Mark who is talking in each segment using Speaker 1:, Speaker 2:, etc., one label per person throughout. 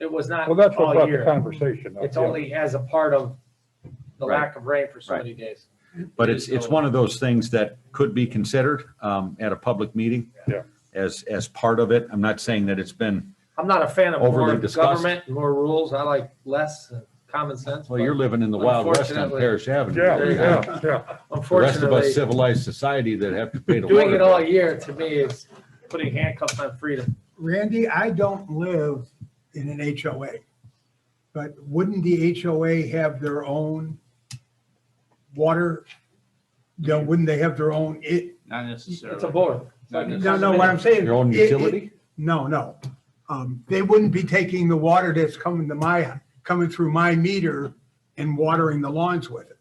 Speaker 1: It was not
Speaker 2: Well, that's what
Speaker 1: all
Speaker 2: brought the
Speaker 1: year.
Speaker 2: conversation up.
Speaker 1: It's
Speaker 2: yeah.
Speaker 1: only as a part of the
Speaker 3: Right.
Speaker 1: lack of rain for so
Speaker 3: Right.
Speaker 1: many days.
Speaker 3: But it's, it's one of those things that could be considered um, at a public meeting.
Speaker 2: Yeah.
Speaker 3: As, as part of it. I'm not saying that it's been,
Speaker 1: I'm not a fan of
Speaker 3: Overly
Speaker 1: more
Speaker 3: discussed.
Speaker 1: government, more rules. I like less and common sense.
Speaker 3: well,
Speaker 1: but
Speaker 3: you're living in the Wild West on
Speaker 1: Unfortunately.
Speaker 3: Parrish Avenue.
Speaker 2: Yeah,
Speaker 1: There you
Speaker 2: yeah, yeah.
Speaker 3: The rest of us
Speaker 1: Unfortunately,
Speaker 3: civilized society that have to pay the
Speaker 1: doing
Speaker 3: water.
Speaker 1: it all
Speaker 3: bill.
Speaker 1: year to me is putting handcuffs on freedom.
Speaker 4: Randy, I don't live in an HOA, but wouldn't the HOA have their own water? No, wouldn't they have their own, it,
Speaker 5: Not
Speaker 1: It's a
Speaker 5: necessarily.
Speaker 1: board.
Speaker 5: Not necessarily.
Speaker 4: no, no, what I'm saying.
Speaker 3: Your own
Speaker 4: it- it-
Speaker 3: utility?
Speaker 4: No, no. Um, they wouldn't be taking the water that's coming to my, coming through my meter and watering the lawns with it.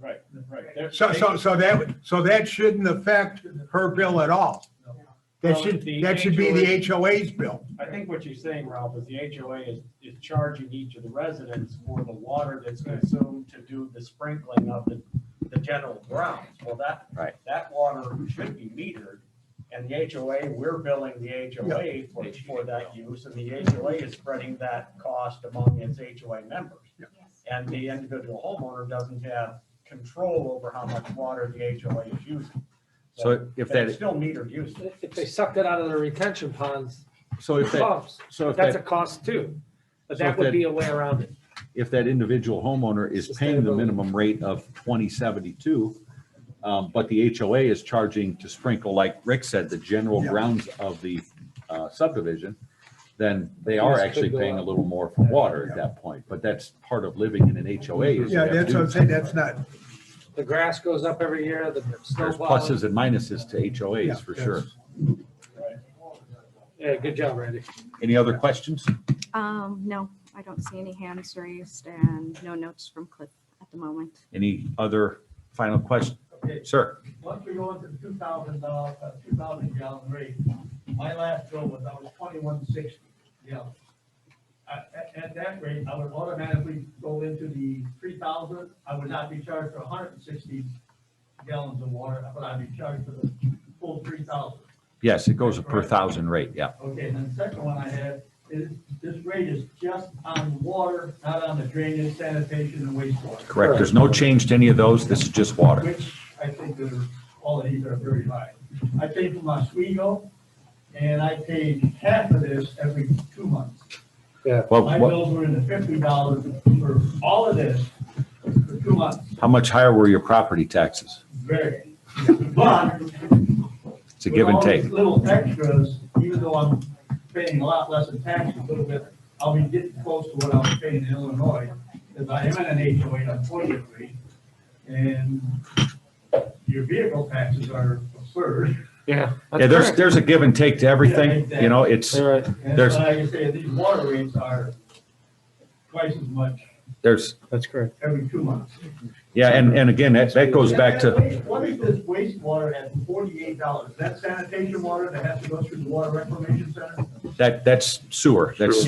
Speaker 5: Right, right.
Speaker 4: So, so, so that, so that shouldn't affect her bill at all. That
Speaker 6: Well,
Speaker 4: should,
Speaker 6: the
Speaker 4: that should be the
Speaker 6: HOA
Speaker 4: HOA's bill.
Speaker 6: I think what you're saying, Ralph, is the HOA is, is charging each of the residents for the water that's consumed to do the sprinkling of the, the general grounds. Well, that.
Speaker 3: Right.
Speaker 6: That water should be metered, and the HOA, we're billing the HOA for, for that use, and the HOA is spreading that cost among its HOA members. And the individual homeowner doesn't have control over how much water the HOA is using.
Speaker 3: So if
Speaker 6: But it's
Speaker 3: that,
Speaker 6: still metered usage.
Speaker 1: If they sucked it out of the retention ponds,
Speaker 3: so if that,
Speaker 1: pumps,
Speaker 3: so
Speaker 1: Oh,
Speaker 3: if
Speaker 1: that's a
Speaker 3: that,
Speaker 1: cost too. But
Speaker 3: So
Speaker 1: that
Speaker 3: if
Speaker 1: would
Speaker 3: that-
Speaker 1: be a way around it.
Speaker 3: if that individual homeowner is paying the
Speaker 1: Sustainability.
Speaker 3: minimum rate of twenty seventy-two, um, but the HOA is charging to sprinkle, like Rick said, the general
Speaker 4: Yeah.
Speaker 3: grounds of the uh, subdivision, then they are
Speaker 1: Yes,
Speaker 3: actually
Speaker 1: could go
Speaker 3: paying a
Speaker 1: up.
Speaker 3: little more for water at that point, but that's part of living in an HOA. is you
Speaker 4: Yeah,
Speaker 3: have to
Speaker 4: that's
Speaker 3: do
Speaker 4: what I'm saying, that's not,
Speaker 1: The grass goes up every year, the snow
Speaker 3: There's
Speaker 1: plows.
Speaker 3: pluses and minuses to
Speaker 4: Yeah,
Speaker 3: HOAs for sure.
Speaker 1: Yeah, good job, Randy.
Speaker 3: Any other questions?
Speaker 7: Um, no, I don't see any hands raised and no notes from Cliff at the moment.
Speaker 3: Any other final question?
Speaker 8: Okay.
Speaker 3: Sir,
Speaker 8: Once we go into two thousand dollars, uh, two thousand gallon rate, my last bill was, I was twenty-one sixty gallon. At, at, at that rate, I would automatically go into the three thousand, I would not be charged for hundred and sixty gallons of water, but I'd be charged for the full three thousand.
Speaker 3: yes, it goes a per thousand rate, yeah.
Speaker 8: Okay, and then the second one I had is, this rate is just on water, not on the drainage, sanitation, and wastewater.
Speaker 3: Correct. There's no change to any of those. This is just water.
Speaker 8: which I think are, all of these are very high. I paid for my Oswego, and I paid half of this every two months.
Speaker 3: Well,
Speaker 8: My
Speaker 3: what,
Speaker 8: bills were in the fifty dollars for all of this for two months,
Speaker 3: how much higher were your property taxes?
Speaker 8: very. But
Speaker 3: It's a give and take.
Speaker 8: with all these Little extras, even though I'm paying a lot less in taxes, a little bit, I'll be getting close to what I was paying in Illinois, because I am in an HOA, I'm forty-eight rate, and your vehicle taxes are absurd.
Speaker 1: Yeah.
Speaker 3: Yeah, there's, there's a give and take to everything, you know, it's,
Speaker 1: All right,
Speaker 8: And
Speaker 3: There's-
Speaker 8: like I say, these water rates are twice as much
Speaker 3: there's,
Speaker 1: that's correct.
Speaker 8: every two months.
Speaker 3: yeah, and, and again, that, that goes back to,
Speaker 8: What is this wastewater at forty-eight dollars? That sanitation water that has to go through the water reclamation center?
Speaker 3: that, that's sewer, that's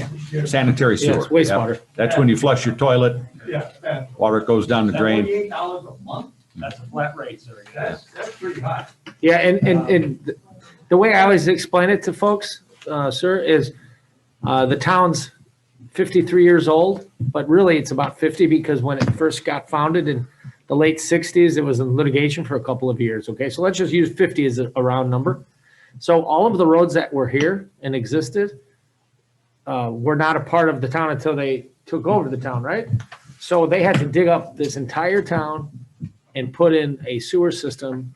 Speaker 3: sanitary
Speaker 1: Yeah,
Speaker 3: sewer.
Speaker 1: it's wastewater.
Speaker 3: Yeah. That's when you flush your toilet,
Speaker 8: Yeah, that.
Speaker 3: water goes down the drain.
Speaker 8: Forty-eight dollars a month?
Speaker 6: That's a flat rate, sir.
Speaker 8: That's, that's pretty high.
Speaker 1: Yeah, and, and, and th- the way I always explain it to folks, uh, sir, is, uh, the town's fifty-three years old, but really it's about fifty because when it first got founded in the late sixties, it was in litigation for a couple of years, okay? So let's just use fifty as a a round number. So all of the roads that were here and existed, uh, were not a part of the town until they took over the town, right? So they had to dig up this entire town and put in a sewer system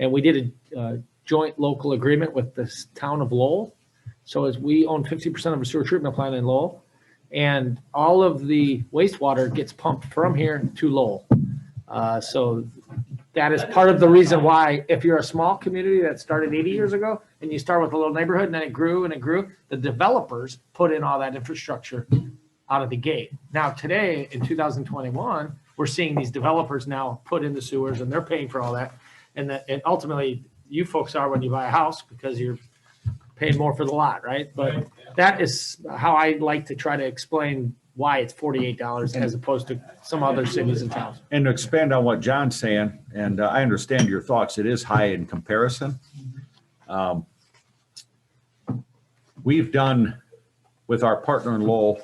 Speaker 1: and we did a uh, joint local agreement with the s- town of Lowell. So as we own fifty percent of a sewer treatment plant in Lowell, and all of the wastewater gets pumped from here to Lowell. Uh, So that is part of the reason why, if you're a small community that started eighty years ago, and you start with a little neighborhood, and then it grew and it grew, the developers put in all that infrastructure out of the gate. Now, today, in two thousand twenty-one, we're seeing these developers now put in the sewers, and they're paying for all that. And that, and ultimately, you folks are when you buy a house because you're paying more for the lot, right? But that is how I like to try to explain why it's forty-eight dollars as opposed to some other cities and towns.
Speaker 3: And to expand on what John's saying, and uh, I understand your thoughts, it is high in comparison. Um, We've done with our partner in Lowell,